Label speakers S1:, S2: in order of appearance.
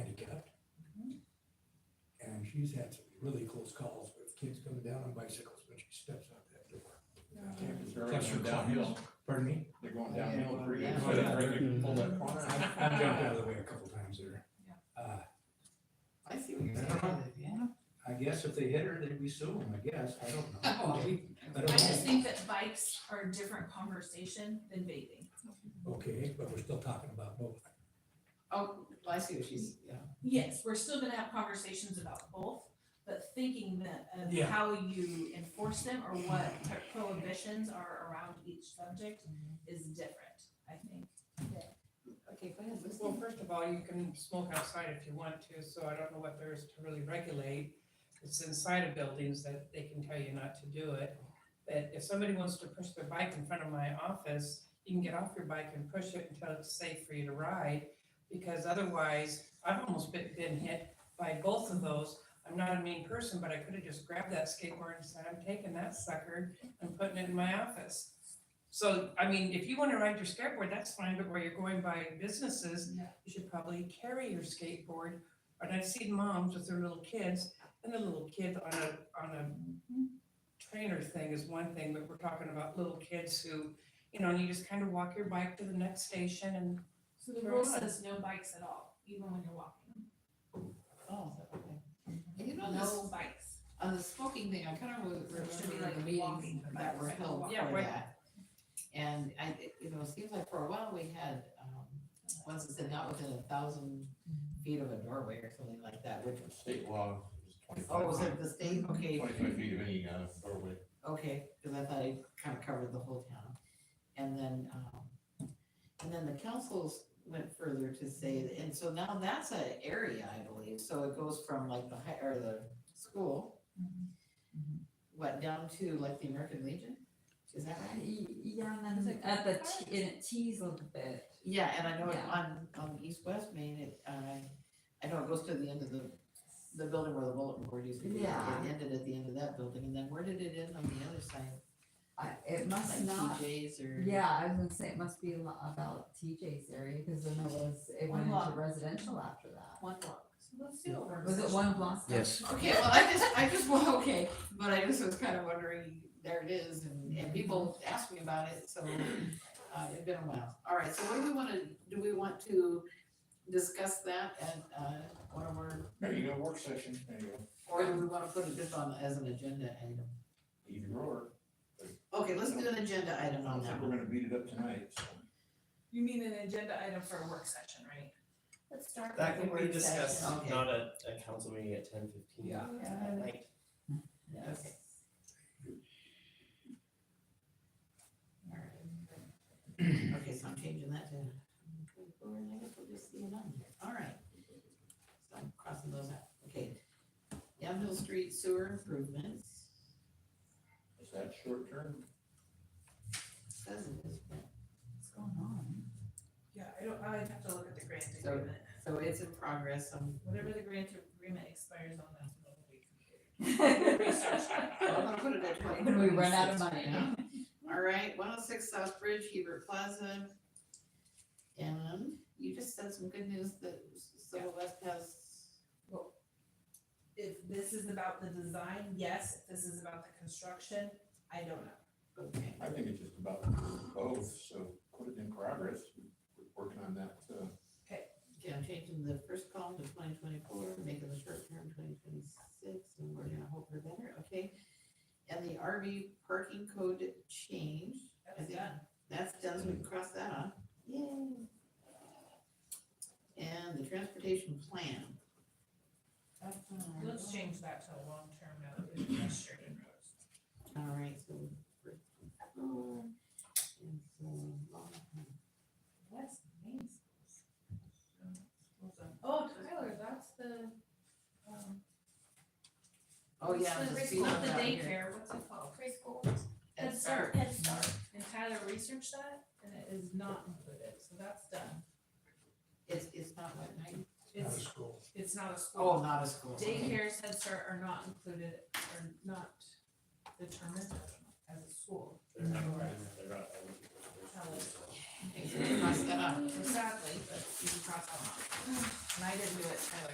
S1: she's had some really close calls with kids coming down on bicycles when she steps out that door.
S2: They're
S1: That's
S2: going
S1: her
S2: downhill,
S1: Pardon me?
S2: they're going downhill pretty
S3: Yeah.
S2: good.
S1: Yeah.
S2: They can pull that corner.
S1: I I jumped out of the way a couple times there. Uh,
S3: I see what you're saying, yeah.
S1: I guess if they hit her, then we sue them, I guess, I don't know.
S3: Oh, we-
S1: I
S4: I
S1: don't
S4: just
S1: know.
S4: think that bikes are a different conversation than vaping.
S1: Okay, but we're still talking about both.
S3: Oh, I see what she's, yeah.
S4: Yes, we're still gonna have conversations about both, but thinking that of
S1: Yeah.
S4: how you enforce them or what prohibitions are around each subject
S5: Mm-hmm.
S4: is different, I think.
S3: Okay, go ahead,
S6: Well,
S3: Lucy.
S6: first of all, you can smoke outside if you want to, so I don't know what there is to really regulate. It's inside of buildings that they can tell you not to do it. But if somebody wants to push their bike in front of my office, you can get off your bike and push it until it's safe for you to ride. Because otherwise, I've almost been, been hit by both of those. I'm not a mean person, but I could have just grabbed that skateboard and said, I'm taking that sucker and putting it in my office. So, I mean, if you wanna ride your skateboard, that's fine, but where you're going by businesses, you should probably carry your skateboard. And I've seen moms with their little kids, and the little kid on a, on a trainer thing is one thing, but we're talking about little kids who, you know, and you just kind of walk your bike to the next station and,
S4: So the rule
S6: Sure.
S4: says no bikes at all, even when you're walking,
S3: Oh, okay. And you know, this,
S4: no bikes.
S3: on the smoking thing, I kind of remember
S4: Should be
S3: the
S4: like
S3: meetings
S4: walking or
S3: that were
S4: bicycle
S3: held for
S4: walk.
S6: Yeah, right.
S3: that. And I, it- you know, it seems like for a while we had, um, ones that said not within a thousand feet of a doorway or something like that, which was.
S7: State law is
S3: Oh, was
S7: twenty-five,
S3: it the state? Okay,
S7: twenty-five feet of any, uh, doorway.
S3: okay, because I thought it kind of covered the whole town. And then, um, and then the councils went further to say, and so now that's an area, I believe, so it goes from like the high, or the school,
S4: Mm-hmm.
S3: what, down to like the American Legion? Is that right?
S8: Yeah, and then at the, t- and it tees a little bit.
S3: Yeah, and I know it
S8: Yeah.
S3: on, on East West Main, it, uh, I know it goes to the end of the, the building where the bulletin board used to be.
S8: Yeah.
S3: It ended at the end of that building, and then where did it end on the other side?
S8: I- It must
S3: Like
S8: not,
S3: TJ's or?
S8: yeah, I was gonna say it must be a lot about TJ's area, because then it was, it went
S3: One
S8: into
S3: block.
S8: residential after that.
S3: One block.
S4: So let's do a work
S8: Was it
S4: session.
S8: one block?
S5: Yes.
S3: Okay, well, I just, I just, well, okay, but I just was kind of wondering, there it is, and, and people ask me about it, so, uh, it's been a while. All right, so what do we wanna, do we want to discuss that at, uh, one of our,
S2: There you go, work session, there you go,
S3: or do we wanna put it just on as an agenda item?
S2: either or.
S3: Okay, let's do an agenda item
S2: I
S3: on
S2: don't think
S3: that
S2: we're
S3: one.
S2: gonna beat it up tonight, so.
S4: You mean an agenda item for a work session, right?
S3: Let's start
S5: That can be discussed,
S3: Okay.
S5: not at a council meeting at ten fifteen.
S4: Yeah.
S5: At night.
S3: Yes. All right. Okay, so I'm changing that to, we're we'll just see it on here, all right. So I'm crossing those out, okay. Downhill Street Sewer Improvements,
S2: Is that short term?
S3: says it is, but what's going on?
S4: Yeah, I don't, I'd have to look at the grant
S3: So- So it's in progress, um,
S4: Whatever the grant agreement expires on, that's what will be
S3: I'm gonna put it at twenty.
S8: When we run out of money.
S3: Yeah. All right, one oh six South Bridge, Hebert Plaza. And you just said some good news that Silver West has,
S4: If this is about the design, yes, if this is about the construction, I don't know.
S3: okay,
S2: I think it's just about both, so put it in progress, we're working on that, uh,
S3: okay, I'm changing the first column to twenty twenty-four, making the short term twenty twenty-six, and we're gonna hope for better, okay? And the RV parking code change, I
S4: That's
S3: think
S4: done.
S3: that's done, so we can cross that off, yay. And the transportation plan.
S4: Let's change that to a long-term note, it's pedestrian roads.
S3: All right, so. first floor, and so, long-
S4: West Main Schools. Oh, Tyler, that's the, um.
S3: Oh,
S4: what's
S3: yeah.
S4: the
S3: the
S4: preschool-
S3: speed
S4: Not the
S3: down here.
S4: daycare, what's it called? Preschool.
S3: Head
S4: Head Start.
S3: Start.
S4: Head Start. And Tyler researched that and it is not included, so that's done.
S3: It's, it's not what night?
S1: Out of
S4: It's,
S1: school.
S4: it's not a
S3: Oh,
S4: school.
S3: not a school.
S4: Daycare's Head Start are not included, are not determined as a school.
S5: They're not,
S4: Right.
S5: they're not.
S3: Okay, so we crossed that off.
S4: Mm. Exactly, but you can cross that off. And I didn't do it, Tyler